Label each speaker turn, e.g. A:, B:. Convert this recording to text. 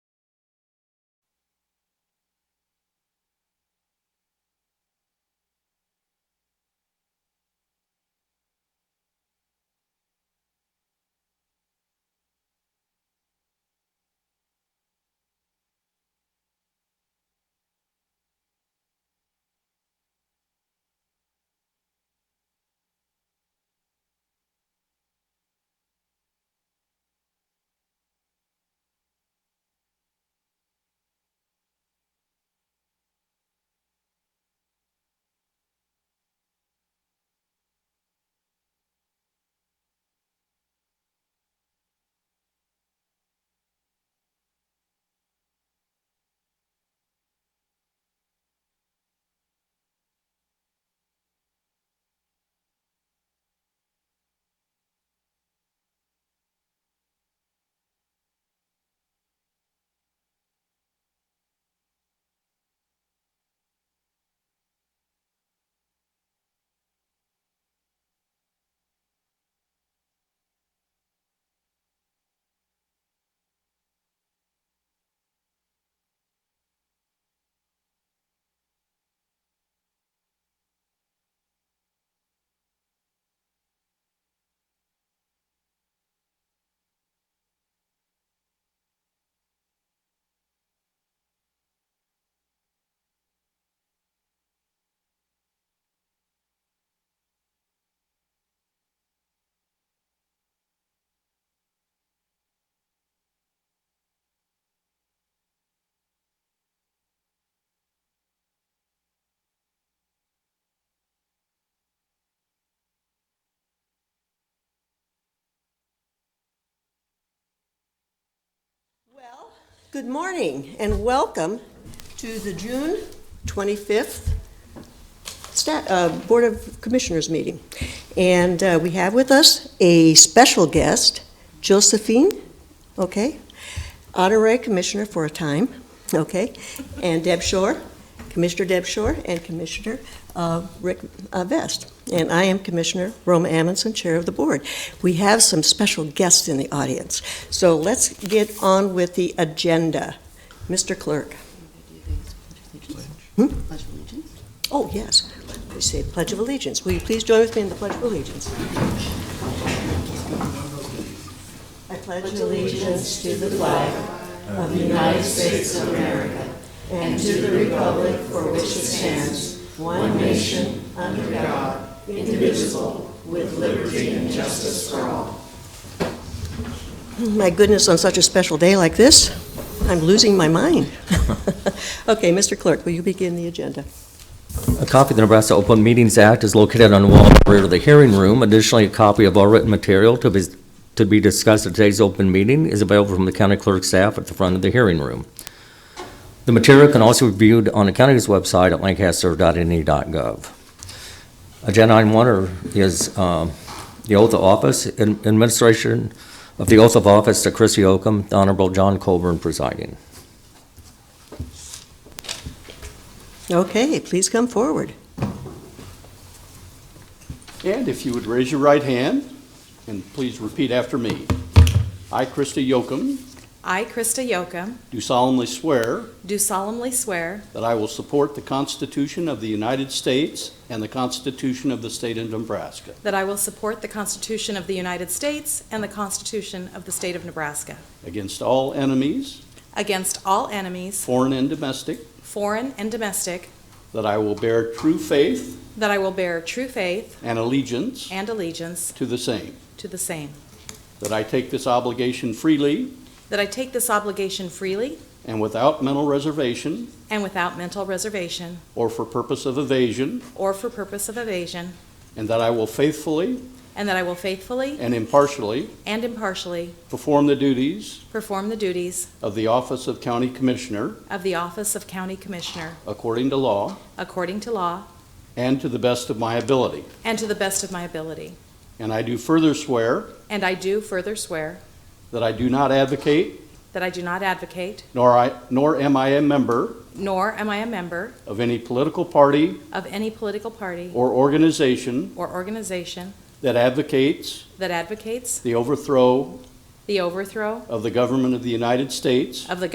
A: Good morning and welcome to the June 25th sta- uh, Board of Commissioners meeting. And uh, we have with us a special guest, Josephine, okay? Honorary Commissioner for a time, okay? And Deb Shore, Commissioner Deb Shore, and Commissioner uh, Rick uh, Vest. And I am Commissioner Roma Amundson, Chair of the Board. We have some special guests in the audience. So let's get on with the agenda. Mr. Clerk. Hmm?
B: Pledge allegiance.
A: Oh, yes. We say Pledge of Allegiance. Will you please join with me in the Pledge of Allegiance? I pledge allegiance to the flag of the United States of America and to the republic for which it stands, one nation, under God, indivisible, with liberty and justice for all. Hmm, My goodness, on such a special day like this, I'm losing my mind. Okay, Mr. Clerk, will you begin the agenda?
C: A copy of the Nebraska Open Meetings Act is located on the wall in the rear of the hearing room. Additionally, a copy of all written material to be, to be discussed at today's open meeting is available from the county clerk staff at the front of the hearing room. The material can also be viewed on the county's website at lancaster.ne.gov. E Agenda item one are- is um, the oath of office, and administration of the oath of office to Chrissy Oakham, the Honorable John Colburn presiding.
A: Okay, please come forward.
D: And if you would raise your right hand, and please repeat after me. I, Krista Yocum,
E: I, Krista Yocum,
D: do solemnly swear
E: do solemnly swear
D: that I will support the Constitution of the United States and the Constitution of the State of Nebraska,
E: that I will support the Constitution of the United States and the Constitution of the State of Nebraska
D: against all enemies,
E: against all enemies,
D: foreign and domestic,
E: foreign and domestic,
D: that I will bear true faith
E: that I will bear true faith
D: and allegiance
E: and allegiance
D: to the same,
E: to the same,
D: that I take this obligation freely
E: that I take this obligation freely
D: and without mental reservation
E: and without mental reservation
D: or for purpose of evasion,
E: or for purpose of evasion,
D: and that I will faithfully
E: and that I will faithfully
D: and impartially
E: and impartially
D: perform the duties
E: perform the duties
D: Of the office of County Commissioner,
E: of the office of County Commissioner
D: according to law,
E: according to law
D: and to the best of my ability.
E: and to the best of my ability.
D: And I do further swear
E: And I do further swear
D: that I do not advocate,
E: That I do not advocate,
D: nor I, nor am I a member
E: nor am I a member
D: of any political party
E: of any political party
D: or organization
E: or organization
D: that advocates
E: that advocates
D: the overthrow
E: the overthrow
D: of the government of the United States
E: of the